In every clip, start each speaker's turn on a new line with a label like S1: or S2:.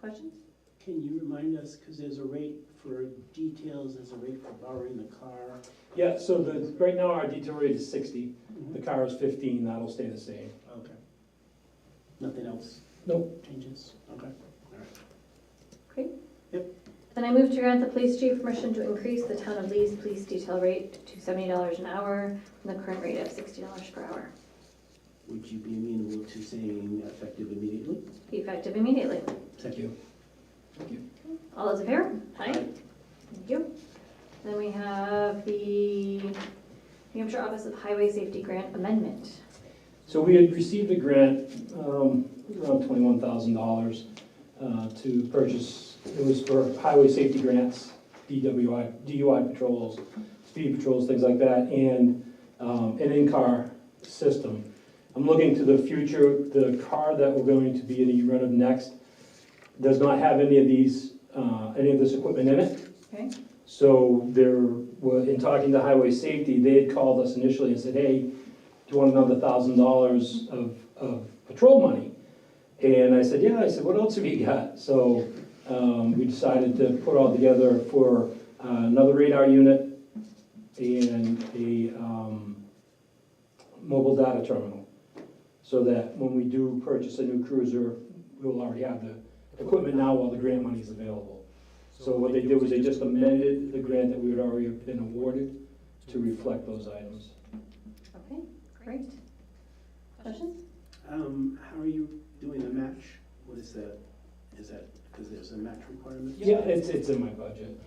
S1: Questions?
S2: Can you remind us, because there's a rate for details, there's a rate for borrowing the car.
S3: Yeah, so the, right now our detail rate is sixty, the car is fifteen, that'll stay the same.
S2: Okay. Nothing else
S3: Nope.
S2: changes? Okay.
S1: Great.
S2: Yep.
S1: Then I move to grant the police chief permission to increase the town of Lee's police detail rate to seventy dollars an hour from the current rate of sixty dollars per hour,
S2: Would you be amenable to saying effective immediately?
S1: effective immediately.
S2: Thank you.
S1: All those in favor? Aye. Thank you. Then we have the New Hampshire Office of Highway Safety Grant Amendment.
S3: So we had received a grant, um, around twenty-one thousand dollars, uh, to purchase, it was for highway safety grants, DWI, DUI patrols, speed patrols, things like that, and, um, an in-car system. I'm looking to the future, the car that we're going to be in the run of next does not have any of these, uh, any of this equipment in it.
S1: Okay.
S3: So there, were- in talking to highway safety, they had called us initially and said, hey, do you want another thousand dollars of, of patrol money? And I said, yeah, I said, what else have you got? So, um, we decided to put all together for uh, another radar unit and a, um, mobile data terminal. So that when we do purchase a new cruiser, we will already have the equipment now while the grant money is available. So what they did was they just amended the grant that we had already been awarded to reflect those items.
S1: Okay, great. Questions?
S2: Um, how are you doing the match? What is that? Is that, because there's a match requirement?
S3: Yeah, it's, it's in my budget.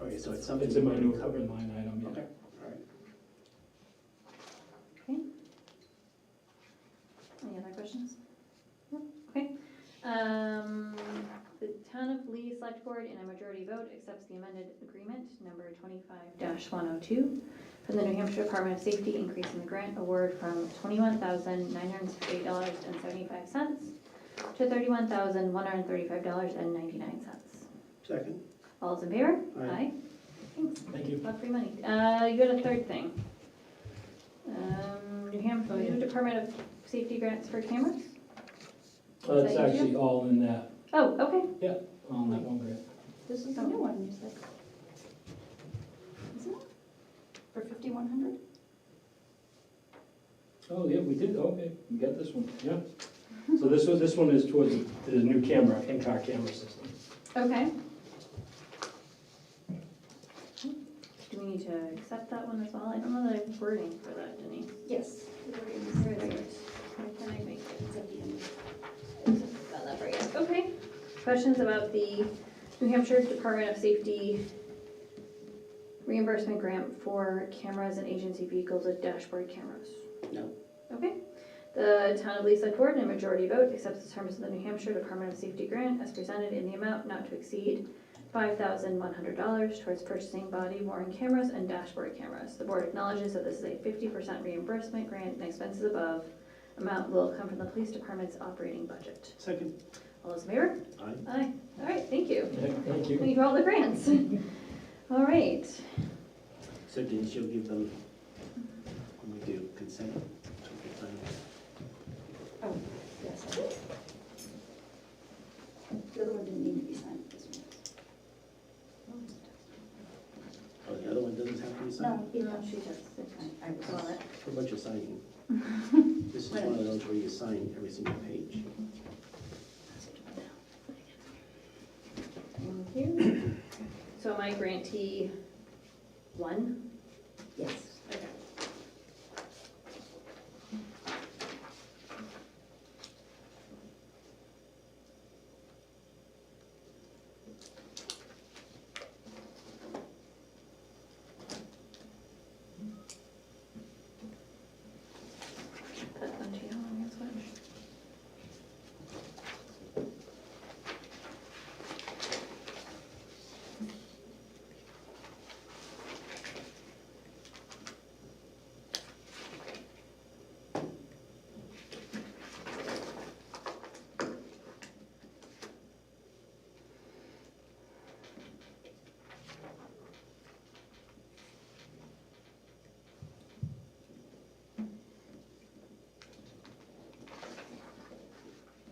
S2: All right, so it's something.
S3: It's in my
S2: already
S3: new
S2: covered.
S3: covered line item, yeah.
S2: Okay, all right.
S1: Okay. Any other questions? No? Okay. Um, The town of Lee Select Board in a majority vote accepts the amended agreement number twenty-five one oh two from the New Hampshire Department of Safety, increasing the grant award from twenty-one thousand nine hundred sixty-eight dollars and seventy-five cents to thirty-one thousand one hundred thirty-five dollars and ninety-nine cents.
S2: Second?
S1: All those in favor?
S2: Aye.
S1: Thanks.
S3: Thank you.
S1: Lot free money. Uh, you got a third thing. Um, New Hampshire,
S3: Oh, yeah.
S1: New Department of Safety grants for cameras?
S3: Uh, It's
S1: Thank you.
S3: actually all in that,
S1: Oh, okay.
S3: all in that one grant.
S4: This is the new one you said. Isn't it? For fifty-one hundred?
S3: Oh, yeah, we did, okay, we got this one, yeah. So this was, this one is towards the new camera, in-car camera system.
S1: Okay. Do we need to accept that one as well? I don't know the wording for that, Denise.
S4: Yes.
S1: Where is it? Can I make it? Got that right. Okay. Questions about the New Hampshire Department of Safety reimbursement grant for cameras and agency vehicles with dashboard cameras?
S2: No.
S1: Okay. The town of Lee Select Board, in a majority vote, accepts the terms of the New Hampshire Department of Safety grant as presented in the amount not to exceed five thousand one hundred dollars towards purchasing body worn cameras and dashboard cameras. The board acknowledges that this is a fifty percent reimbursement grant and expenses above amount will come from the police department's operating budget.
S2: Second?
S1: All those in favor?
S2: Aye.
S1: Aye. All right, thank you.
S3: Yeah, Thank you.
S1: Thank you for all the grants. All right.
S2: So didn't you give them, when we do consent, to the final?
S4: Oh, yes, I did. The other one didn't need to be signed, this one was.
S2: Oh, the other one doesn't have to be signed?
S4: No, he didn't.
S1: she does.
S4: I- I was
S1: Love
S4: on
S1: it.
S4: it.
S2: A bunch of signing. This is one of those where you sign every single page.
S1: Thank you. So my grantee one